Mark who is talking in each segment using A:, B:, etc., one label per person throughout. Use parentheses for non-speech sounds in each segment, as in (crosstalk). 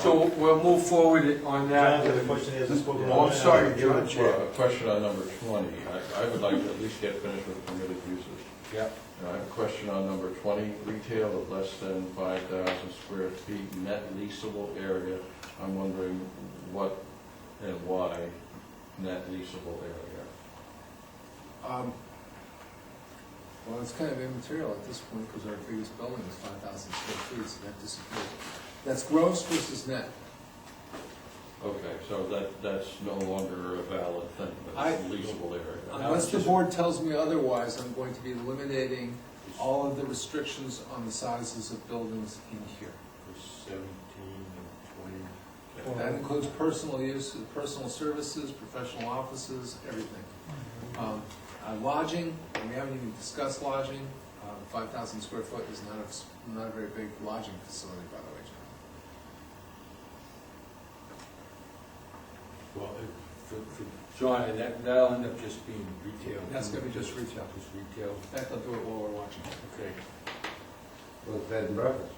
A: So we'll move forward on that.
B: Jonathan, the question is, it's spoken
C: Oh,
B: on.
C: I'm sorry,
B: Give it
C: John.
B: to
C: Well,
B: you.
C: A question on number 20. I I would like to at least get finished with permitted uses.
A: Yep.
C: And I have a question on number 20, retail of less than 5,000 square feet net leasable area. I'm wondering what and why net leasable area?
D: Um, Well, it's kind of immaterial at this point, because our biggest building is five thousand square feet, so that disappears. That's gross versus net.
C: Okay, so that, that's no longer a valid thing,
D: I-
C: but it's leasable area.
D: Unless the board tells me otherwise, I'm going to be eliminating all of the restrictions on the sizes of buildings in here.
B: Seventeen and
D: That includes personal use, personal services, professional offices, everything. Um, uh, Lodging, and we haven't even discussed lodging, Uh, five thousand square foot is not a, s- not a very big lodging facility, by the way, John.
B: twenty. Well, it- for, for
A: John, and that, that'll end up just being retail.
D: That's gonna be just retail.
A: Just retail,
D: In fact, I'll do it while we're watching.
A: okay.
E: Well, bed and breakfast.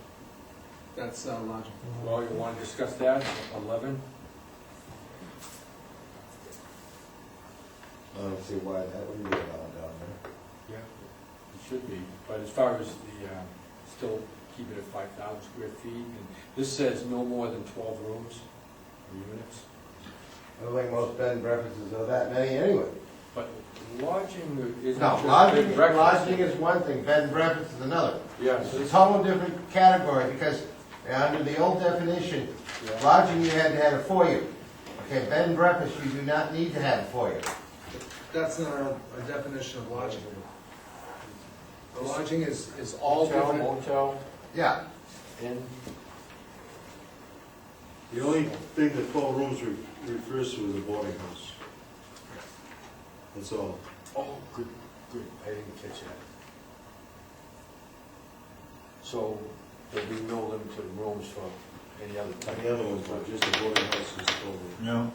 D: That's uh, lodging.
A: Well, you wanna discuss that, eleven?
E: I don't see why that wouldn't be allowed down there.
A: Yeah. It should be, but as far as the, uh, still keep it at five thousand square feet, and this says no more than twelve rooms or units.
E: I don't think most bed and breakfasts are that many anyway.
A: But lodging is
E: No,
A: not just bed
E: lodging,
A: and breakfast.
E: lodging is one thing, bed and breakfast is another. It's
A: Yes,
E: a total different category, because uh, under the old definition,
A: yeah.
E: lodging you had to have a foyer. Okay, bed and breakfast, you do not need to have a foyer.
D: That's not our our definition of lodging. The lodging is, is all
A: Hotel,
D: different.
A: motel,
E: Yeah,
A: inn.
B: The only thing that twelve rooms re- refers to is a boarding house. That's all.
A: Oh, good, good, I didn't catch that. So there'll be no limited rooms for any other type?
B: And the other ones, but just a boarding house is twelve rooms.
F: No.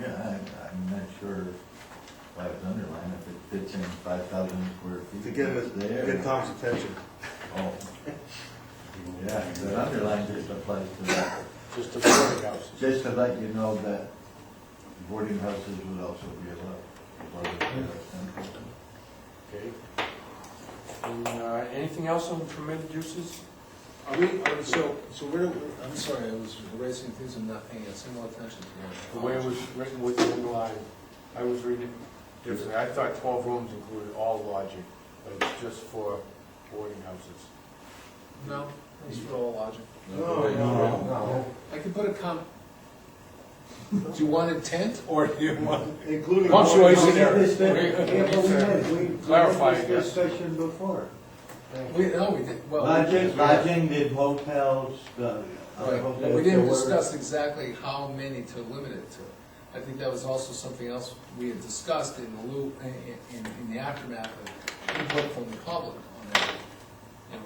F: Yeah, I, I'm not sure why it's underlined, if it fits in five thousand square feet.
B: To get
F: it's there.
B: get Tom's attention.
F: Oh. Yeah, the underline just applies to that,
A: Just the boarding houses?
F: just to let you know that boarding houses would also be allowed. Boarding houses.
A: Okay. And, uh, anything else on permitted uses?
D: Are we, are- so, so where, I'm sorry, I was erasing things and not paying a single attention to
A: The
D: them.
A: way it was written was underlined, I was reading it differently, I thought twelve rooms included all lodging, but it's just for boarding houses.
D: No, it's for all lodging.
C: No,
B: Oh,
A: Oh,
C: no,
E: no.
D: I can put a com, do you want a tent
A: (laughs)
D: or do you want?
B: Including.
A: Punctuation error.
F: Yeah, but we had, we- we.
A: Clarify, I
F: had
A: guess.
F: this discussion before.
D: We, no, we did, well. we-
F: Lodging, lodging did motels, the. uh,
D: Right, we didn't discuss exactly how many to limit it to. I think that was also something else we had discussed in the loop, in, in, in the aftermath of input from the public on that. You know,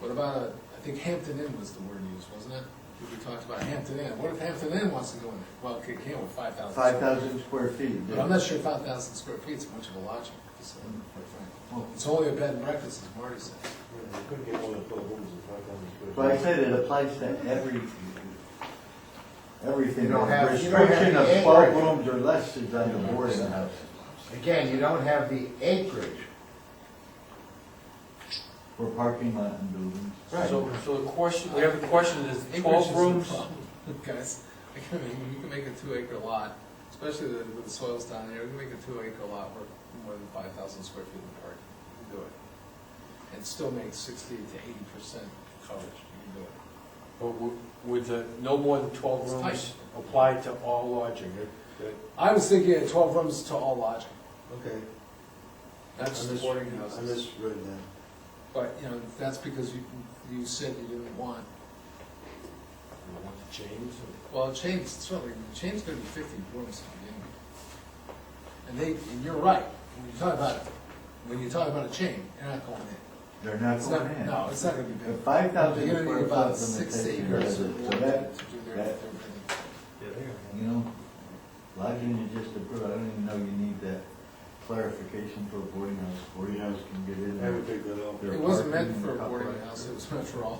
D: what about, a- I think Hampton Inn was the word used, wasn't it? We talked about Hampton Inn, what if Hampton Inn wants to go in there? Well, it can't with five thousand.
F: Five thousand square feet.
D: But I'm not sure five thousand square feet is much of a lodging facility, quite frankly. It's only a bed and breakfast, as Marty said.
B: You couldn't get more than twelve rooms in five thousand square feet.
F: But I said it applies to every, everything.
E: You don't have- you don't have
F: Restriction
E: the
F: of twelve
E: acreage.
F: rooms or less is on the boarding house.
E: Again, you don't have the acreage.
F: For parking lot and buildings.
A: So, so the question, we have a question, is
D: Acreage is
A: twelve
D: the
A: rooms?
D: problem, (laughs) Guys, I can, make- you can make a two acre lot, especially the- with the soils down there, you can make a two acre lot worth more than five thousand square feet of parking. You can do it. And still make sixty to eighty percent coverage, you can do it.
A: But w- would the, no more than twelve
D: It's
A: rooms
D: tight.
A: apply to all lodging? That- that-
D: I was thinking of twelve rooms to all lodging,
B: Okay.
D: that's
B: I
D: the
B: mis-
D: boarding
B: I
D: houses.
B: misread that.
D: But, you know, that's because you, you said you didn't want,
A: You don't want to change or-
D: well, Shane's, certainly, Shane's gonna be fifty rooms to begin with. And they, and you're right, when you talk about, when you talk about a chain, you're not going in.
F: They're not
D: It's
F: going
D: not,
F: in.
D: no, it's not gonna be
F: The
D: big.
F: five thousand
D: You're
F: square
D: gonna
F: foot
D: need about six
F: limitation
D: acres
F: is
D: or
F: it,
D: more
F: so
D: to
F: that,
D: do their,
F: that-
D: their business.
F: you know, lodging is just a, I don't even know you need that clarification for a boarding house. Boarding house can get in
B: I
F: there.
B: would take that out.
F: Their
D: It wasn't meant
F: parking,
D: for a
F: couple
D: boarding
F: of-
D: house, it was meant for all